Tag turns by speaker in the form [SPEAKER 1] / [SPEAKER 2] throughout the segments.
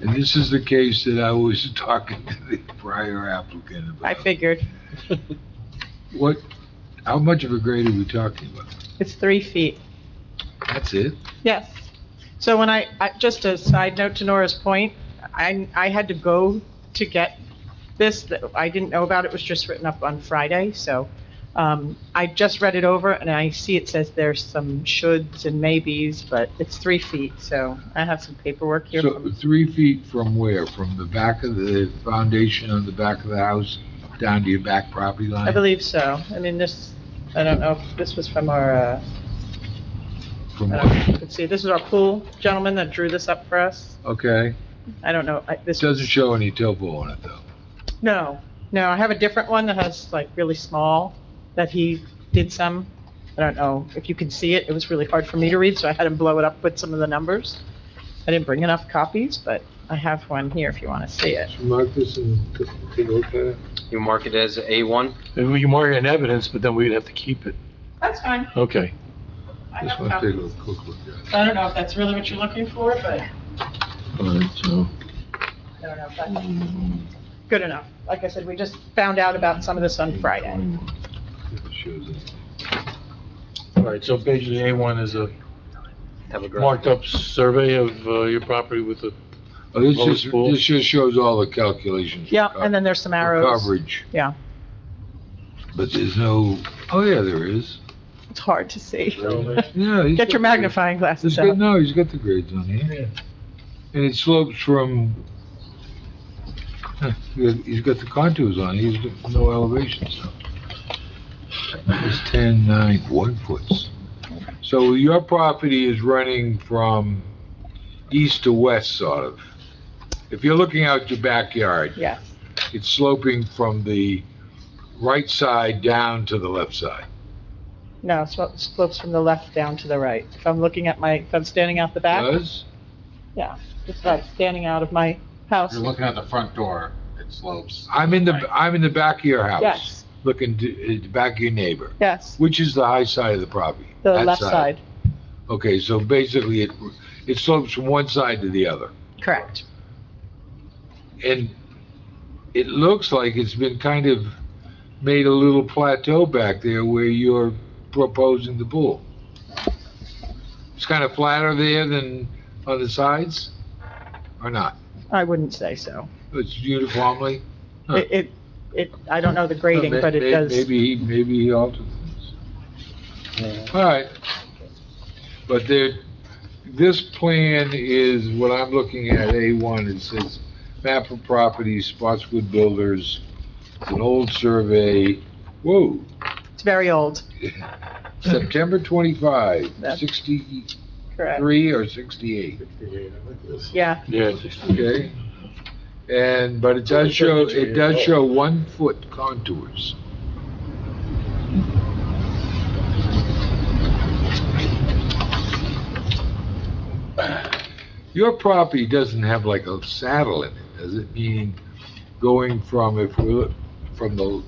[SPEAKER 1] This is the case that I was talking to the prior applicant
[SPEAKER 2] I
[SPEAKER 1] about.
[SPEAKER 2] figured.
[SPEAKER 1] What, how much of a grade are we talking about?
[SPEAKER 2] It's three feet.
[SPEAKER 1] That's it?
[SPEAKER 2] Yes. So when I, I- just a side note to Nora's point, I, I had to go to get this, that I didn't know about, it was just written up on Friday, so um, I just read it over, and I see it says there's some shoulds and maybes, but it's three feet, so I have some paperwork here.
[SPEAKER 1] So
[SPEAKER 2] from-
[SPEAKER 1] three feet from where? From the back of the foundation on the back of the house down to your back property line?
[SPEAKER 2] I believe so. I mean, this, I don't know if this was from our, uh,
[SPEAKER 1] From
[SPEAKER 2] I don't know
[SPEAKER 1] what?
[SPEAKER 2] if you can see, this is our pool gentleman that drew this up for us.
[SPEAKER 1] Okay.
[SPEAKER 2] I don't know, I-
[SPEAKER 1] It
[SPEAKER 2] this
[SPEAKER 1] doesn't show any topo on it, though.
[SPEAKER 2] No, no, I have a different one that has like really small, that he did some. I don't know if you can see it, it was really hard for me to read, so I had him blow it up with some of the numbers. I didn't bring enough copies, but I have one here if you want to see it.
[SPEAKER 1] Mark this and take a look at it.
[SPEAKER 3] You mark it as A1?
[SPEAKER 4] And we can mark it in evidence, but then we'd have to keep it.
[SPEAKER 2] That's fine,
[SPEAKER 4] Okay.
[SPEAKER 2] I
[SPEAKER 1] Just
[SPEAKER 2] have
[SPEAKER 1] want to take a
[SPEAKER 2] copies.
[SPEAKER 1] look- quick look at it.
[SPEAKER 2] I don't know if that's really what you're looking for, but I
[SPEAKER 4] All right, so,
[SPEAKER 2] don't know if that's good enough. Like I said, we just found out about some of this on Friday.
[SPEAKER 1] If it shows it.
[SPEAKER 4] all right, so basically A1 is a
[SPEAKER 3] Have a graph.
[SPEAKER 4] marked up survey of uh, your property with a,
[SPEAKER 1] Oh, this
[SPEAKER 4] Lowest
[SPEAKER 1] just,
[SPEAKER 4] pool.
[SPEAKER 1] this just shows all the calculations. for
[SPEAKER 2] Yeah,
[SPEAKER 1] co-
[SPEAKER 2] and then there's some
[SPEAKER 1] for
[SPEAKER 2] arrows.
[SPEAKER 1] Coverage,
[SPEAKER 2] Yeah,
[SPEAKER 1] but there's no, oh, yeah, there is.
[SPEAKER 2] it's hard to see.
[SPEAKER 1] Yeah. he's
[SPEAKER 2] Get your
[SPEAKER 1] got the-
[SPEAKER 2] magnifying
[SPEAKER 1] He's
[SPEAKER 2] glasses
[SPEAKER 1] got,
[SPEAKER 2] out.
[SPEAKER 1] no, he's got the grades on here. And it slopes from, Huh, he's got the contours on, he's got no elevation, so. It's ten, nine, one foots. So your property is running from east to west, sort of. If you're looking out your backyard,
[SPEAKER 2] Yes,
[SPEAKER 1] it's sloping from the right side down to the left side.
[SPEAKER 2] no, it slo- slopes from the left down to the right. If I'm looking at my, if I'm standing out the back,
[SPEAKER 1] Does?
[SPEAKER 2] yeah, it's like standing out of my house.
[SPEAKER 5] You're looking at the front door, it slopes.
[SPEAKER 1] I'm in the, I'm in the back of your house.
[SPEAKER 2] Yes,
[SPEAKER 1] looking to, at the back of your neighbor,
[SPEAKER 2] yes,
[SPEAKER 1] which is the high side of the property?
[SPEAKER 2] the
[SPEAKER 1] That
[SPEAKER 2] left side,
[SPEAKER 1] Okay, so basically it, it slopes from one side to the other.
[SPEAKER 2] correct.
[SPEAKER 1] And it looks like it's been kind of made a little plateau back there where you're proposing the pool. It's kind of flatter there than on the sides, or not?
[SPEAKER 2] I wouldn't say so.
[SPEAKER 1] It's uniformly? Huh.
[SPEAKER 2] It, it, it. I don't know the grading,
[SPEAKER 1] May-
[SPEAKER 2] but
[SPEAKER 1] may-
[SPEAKER 2] it does,
[SPEAKER 1] Maybe, he- maybe he altered things. All right. But there, this plan is, what I'm looking at, A1, it says map of properties, Spotswood Builders, it's an old survey, whoa,
[SPEAKER 2] it's very old,
[SPEAKER 1] September 25,
[SPEAKER 2] That's-
[SPEAKER 1] 63
[SPEAKER 2] correct.
[SPEAKER 1] or 68,
[SPEAKER 2] Yeah,
[SPEAKER 4] yeah,
[SPEAKER 1] okay? And, but it does show, it does show one-foot contours. Your property doesn't have like a saddle in it, does it? Meaning going from, if we look, from the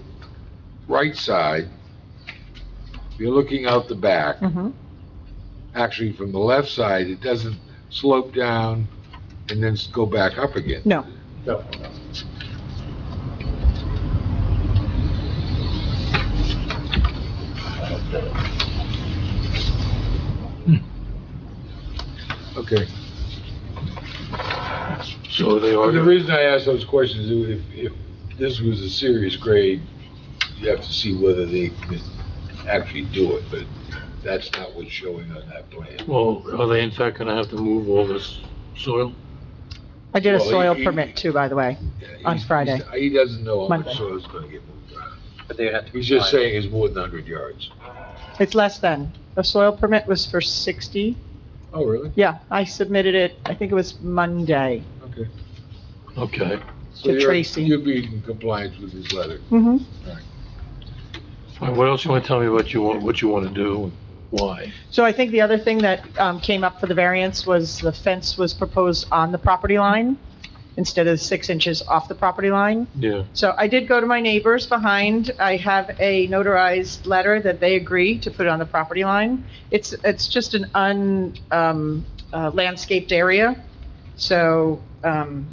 [SPEAKER 1] right side, you're looking out the back,
[SPEAKER 2] hmm
[SPEAKER 1] actually from the left side, it doesn't slope down and then s- go back up again.
[SPEAKER 2] no.
[SPEAKER 1] Hmm. Okay.
[SPEAKER 4] so they
[SPEAKER 1] Well, The
[SPEAKER 4] are,
[SPEAKER 1] reason I asked those questions, is if, if this was a serious grade, you have to see whether they can actually do it, but that's not what's showing on that plan.
[SPEAKER 4] well, are they in fact gonna have to move all this soil?
[SPEAKER 2] I did a
[SPEAKER 1] Well, he-
[SPEAKER 2] soil
[SPEAKER 1] he-
[SPEAKER 2] permit too, by the way. On
[SPEAKER 1] He's-
[SPEAKER 2] Friday.
[SPEAKER 1] he's- He doesn't know how
[SPEAKER 2] Monday.
[SPEAKER 1] much soil's gonna get moved around.
[SPEAKER 3] But they have to.
[SPEAKER 1] He's just
[SPEAKER 3] comply.
[SPEAKER 1] saying it's more than hundred yards.
[SPEAKER 2] It's less than, the soil permit was for sixty.
[SPEAKER 1] Oh, really?
[SPEAKER 2] Yeah, I submitted it, I think it was Monday.
[SPEAKER 1] Okay.
[SPEAKER 4] Okay,
[SPEAKER 1] So you're-
[SPEAKER 2] Tracy.
[SPEAKER 1] You'll be in compliance with his letter.
[SPEAKER 2] hmm
[SPEAKER 4] All right, what else you wanna tell me about you want, what you wanna do, and why?
[SPEAKER 2] So I think the other thing that um, came up for the variance was the fence was proposed on the property line instead of six inches off the property line.
[SPEAKER 4] Yeah,
[SPEAKER 2] So I did go to my neighbors behind. I have a notarized letter that they agree to put on the property line. It's, it's just an un, um, uh, landscaped area. So, um,